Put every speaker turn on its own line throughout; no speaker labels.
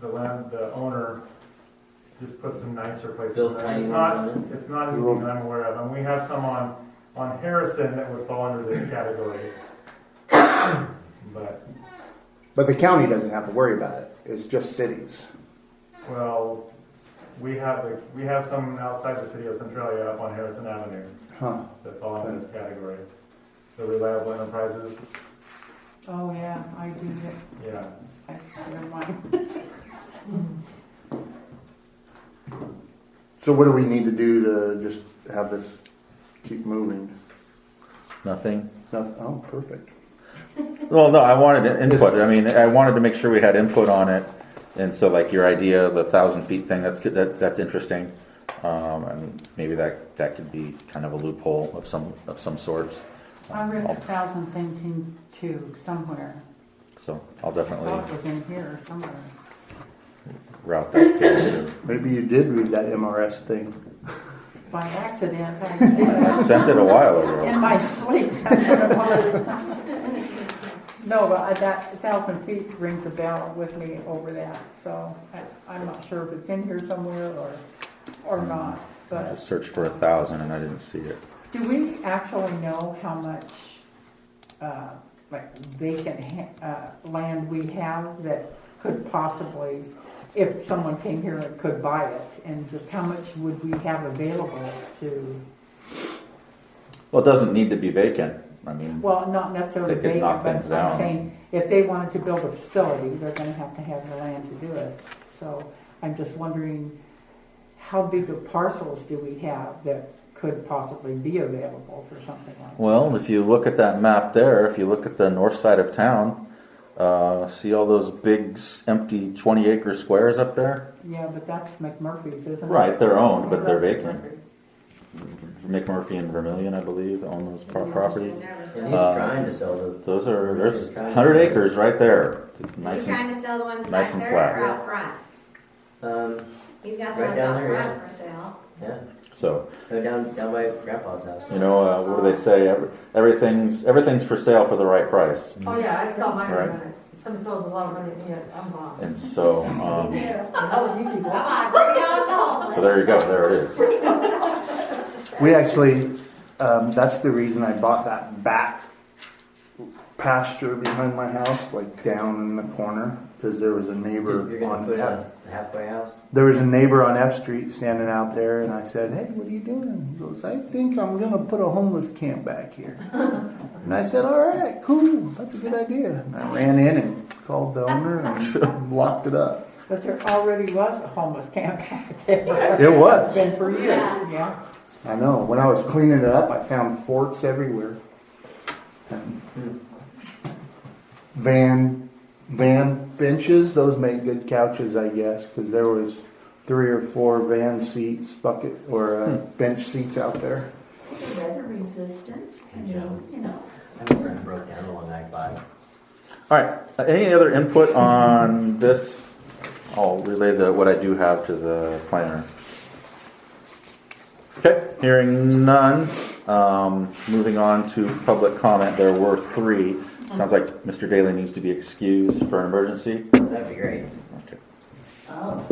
the land, the owner just put some nicer places. in
Built
there.
tiny
It's
one
not,
on it.
it's not as big that I'm aware of, and we have some on, on Harrison that would fall under this category. But,
But the county doesn't have to worry about it. It's just cities.
well, we have, the- we have some outside the city of Centralia up on Harrison Avenue
Huh.
that fall under this category. The Reliable Enterprises,
Oh, yeah, I do get,
yeah.
I, never mind.
So what do we need to do to just have this keep moving?
Nothing.
Noth- oh, perfect.
Well, no, I wanted an input. I mean, I wanted to make sure we had input on it. And so like your idea of the thousand feet thing, that's, good- that, that's interesting. Um, and maybe that, that could be kind of a loophole of some, of some sorts.
I read
I'll-
a thousand thinking too, somewhere.
So I'll
I thought
definitely
it was in here or somewhere.
route that. to-
Maybe you did read that MRS thing.
By accident, I did.
I sent it a while ago.
In my sleep. that's what it was. No, but I, that thousand feet rings a bell with me over that, so I, I'm not sure if it's in here somewhere or, or not,
I
but.
just searched for a thousand and I didn't see it.
Do we actually know how much, uh, like vacant ha- uh, land we have that could possibly, if someone came here and could buy it, and just how much would we have available to,
Well, it doesn't need to be vacant. I mean,
well, not necessarily
They could knock
vacant,
things
but
down.
I'm saying, if they wanted to build a facility, they're gonna have to have the land to do it. So I'm just wondering, how big of parcels do we have that could possibly be available for something like that?
Well, if you look at that map there, if you look at the north side of town, uh, see all those big s- empty 20 acre squares up there?
Yeah, but that's McMurphy's, isn't it?
Right, they're owned, but they're
That's
vacant.
McMurphy's.
McMurphy and Vermillion, I believe, own those pro- properties.
And he's
Uh,
trying to sell the,
Those are, there's 100 acres right there. Nice
He's trying
and,
to sell the ones
nice
back
and
there or out front.
um,
He's got the
Right
ones
down
out
there, yeah.
front for sale.
yeah,
so,
go down, down by grandpa's house.
you know, uh, what do they say? Every- Everything's, everything's for sale for the right price.
Oh, yeah, I saw mine
Right.
on it. Someone throws a lot of money at me, I'm, uh,
And so, um,
oh, you people.
Come on, bring it on home.
so there you go, there it is.
We actually, um, that's the reason I bought that back pasture behind my house, like down in the corner, because there was a neighbor
You're gonna
on
put
F.
a halfway house?
There was a neighbor on F Street standing out there, and I said, "Hey, what are you doing?" He goes, "I think I'm gonna put a homeless camp back here." and I said, "All right, cool. That's a good idea." And I ran in and called the owner and locked it up.
But there already was a homeless camp back there.
It was.
It's Been for years, yeah.
I know. When I was cleaning it up, I found forks everywhere. And Van, van benches. Those make good couches, I guess, because there was three or four van seats, bucket or uh,
Hmm.
bench seats out there.
weather resistant, I mean, you know.
I have a friend who broke down the one I bought.
All right. Uh, Any other input on this? I'll relay the, what I do have to the planner. Okay, hearing none. Um, moving on to public comment, there were three. Sounds like Mr. Daly needs to be excused for an emergency.
That'd be great.
Okay.
Oh,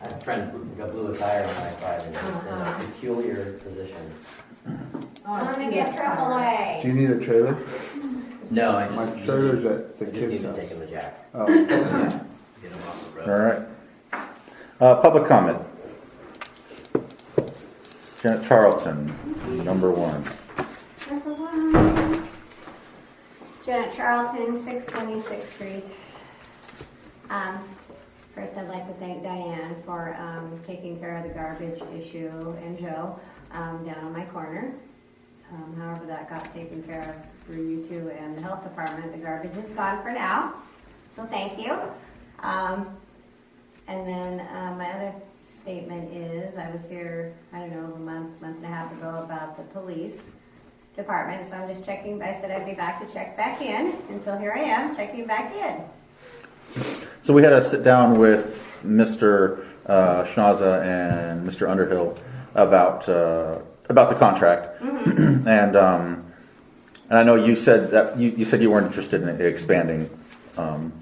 I have a friend who got blew a tire on I five and he's in a peculiar position.
I'm gonna
Oh,
get triple
Do
A.
you need a trailer?
No, I
My
just.
trailer's at the
I just need
kids'
to take
house.
him to Jack.
Oh,
Get him off the
All
road.
right. Uh, public comment. Janet Charlton, number one.
Triple one. Janet Charlton, six twenty-sixth street. Um, first I'd like to thank Diane for, um, taking care of the garbage issue and Joe, um, down on my corner. Um, however, that got taken care of through you two and the health department. The garbage is gone for now, so thank you. Um, and then, uh, my other statement is, I was here, I don't know, a month, month and a half ago about the police department, so I'm just checking, I said I'd be back to check back in, and so here I am, checking back in.
So we had a sit down with Mr. Uh, Schnaza and Mr. Underhill about uh, about the contract, and um, and I know you said that you, you said you weren't interested in expanding um,